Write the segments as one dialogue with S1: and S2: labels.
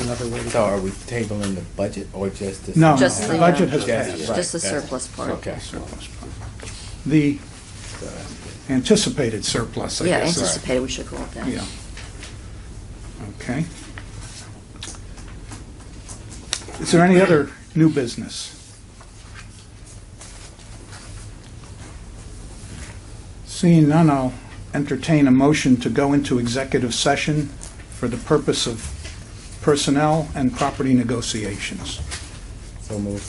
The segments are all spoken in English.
S1: another way to
S2: So
S1: go.
S2: are we tabling the budget or just the? surplus?
S1: No, no,
S3: Just
S1: the
S3: the,
S1: budget
S3: uh,
S1: has
S2: Just-
S1: passed.
S2: right,
S3: Just the
S2: that's-
S3: surplus part.
S2: Okay.
S1: The anticipated surplus, I
S3: Yeah,
S1: guess. is-
S3: anticipated, we should call it that.
S1: Yeah. Okay. Is there any other new business? Seeing none, I'll entertain a motion to go into executive session for the purpose of personnel and property negotiations.
S2: So moved.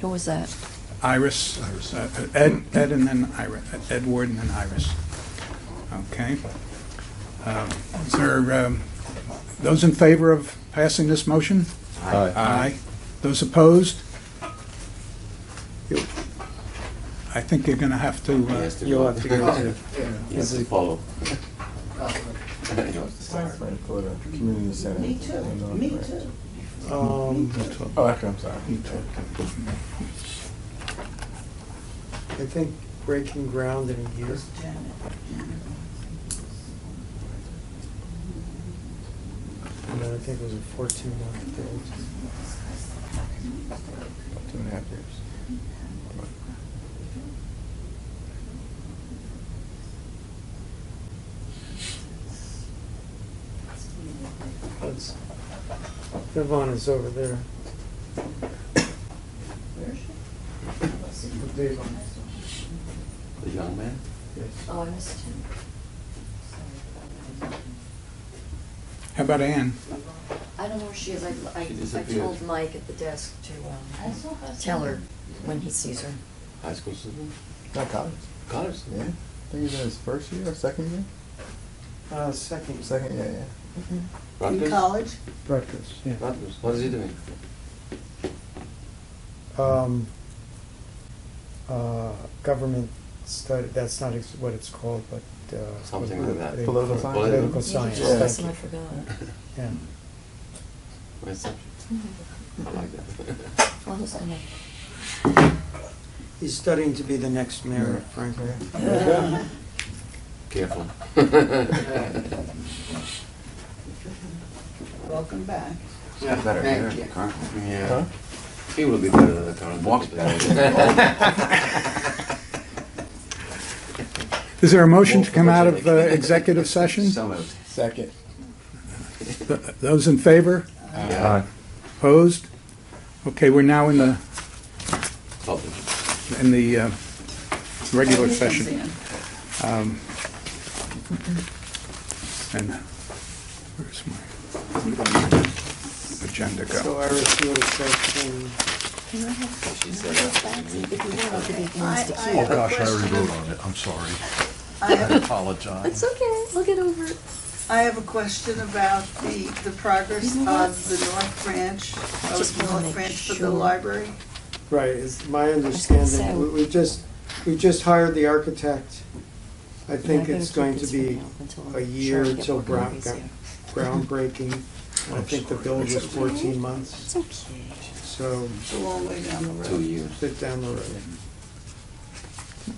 S3: Who was that?
S1: Iris, uh, Ed, Ed and then Iris, Edward and then Iris. Okay. Uh, Is there, um, those in favor of passing this motion? Aye. Those opposed? You- I think you're going to have to, uh,
S4: You'll have to go to.
S5: Yes, to follow.
S4: Community center. Me too, me too.
S6: Um,
S4: Oh, okay, I'm sorry.
S6: I think breaking ground in a year. And then I think it was a fourteen month thing.
S4: Two and a half years.
S6: That's, Yvonne is over there.
S5: The young man?
S3: Oh, I missed him.
S1: how about Ann?
S3: I don't know where she is. I, I,
S5: She
S3: I
S5: disappeared.
S3: told Mike at the desk to, um, tell her when he sees her.
S5: High school student?
S4: Not college,
S5: College?
S4: yeah. I think he was in his first year or second year?
S6: Uh, second.
S4: Second, yeah, yeah.
S1: Mm-hmm.
S5: Rutgers?
S6: Breakfast, yeah.
S5: Rutgers. What is he doing?
S6: um, uh, government study, that's not ex- what it's called, but, uh.
S5: Something like that.
S6: they-
S4: Political science?
S6: Political
S3: You
S6: science,
S3: just asked
S6: thank
S3: him, I
S6: you,
S3: forgot.
S6: yeah.
S5: My subject. I like that.
S3: Well, who's gonna-
S6: He's studying to be the next mayor of Franklin.
S5: Careful.
S7: Welcome back.
S5: Yeah,
S4: better than
S5: thank
S4: the
S5: you.
S4: current
S5: Yeah. He will be better than the current.
S2: Walks
S1: Is there a motion to come out of uh, executive session?
S2: moved.
S4: Second.
S1: Th- Those in favor?
S2: Aye.
S1: Opposed? Okay, we're now in the,
S5: Public.
S1: in the uh, regular session.
S7: Comes in.
S1: And where's my agenda go?
S6: So Iris, you would have said, um,
S5: She said that to me.
S2: Oh, gosh, I already wrote on it, I'm sorry.
S7: I
S2: I
S7: have-
S2: apologize.
S3: It's okay, we'll get over it.
S7: I have a question about the, the progress
S3: You
S7: of
S3: know what?
S7: the North Branch,
S3: just
S7: of
S3: wanna
S7: North
S3: make
S7: Branch for
S3: sure.
S7: the library.
S6: right, it's my
S3: was gonna
S6: understanding,
S3: say-
S6: we, we just, we just hired the architect. I
S3: Yeah,
S6: think
S3: gotta
S6: it's
S3: keep
S6: going to
S3: this
S6: be
S3: one up until I'm
S6: a
S3: sure
S6: year
S3: I get
S6: till
S3: more
S6: Brown
S3: copies
S6: got-
S3: here.
S6: groundbreaking, and I think the build was fourteen months,
S3: It's okay.
S6: so,
S7: It's a long way down the road.
S5: Two years.
S6: sit down the road.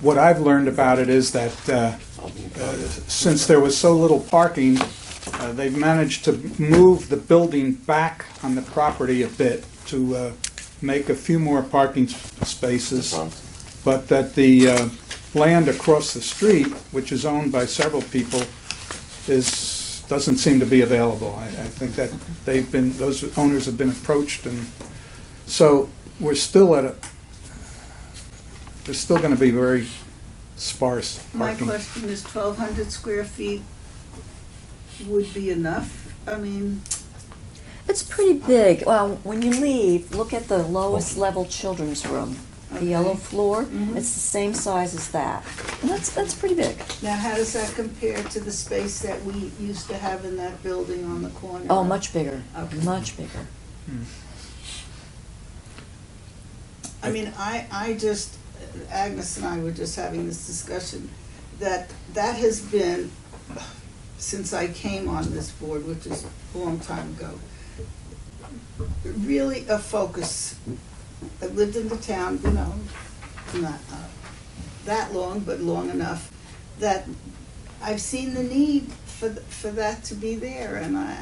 S1: What I've learned about it is that uh,
S5: I'll be in
S1: uh,
S5: progress.
S1: since there was so little parking, uh, they've managed to move the building back on the property a bit to uh, make a few more parking s- spaces,
S5: Front.
S1: but that the uh, land across the street, which is owned by several people, is, doesn't seem to be available. I I think that they've been, those owners have been approached, and so we're still at a, there's still going to be very sparse parking.
S7: My question is twelve hundred square feet would be enough? I mean,
S3: It's pretty big. Well, when you leave, look at the lowest
S6: Oh.
S3: level children's room. The yellow
S7: Okay.
S3: floor,
S6: Mm-hmm.
S7: Mhm.
S3: it's the same size as that. And that's, that's pretty big.
S7: now how does that compare to the space that we used to have in that building on the corner?
S3: Oh, much bigger,
S7: Okay.
S3: much bigger.
S7: I mean, I, I just, Agnes and I were just having this discussion, that that has been, since I came on this board, which is a long time ago, really a focus. I've lived in the town, you know, not uh, that long, but long enough, that I've seen the need for, th- for that to be there, and I,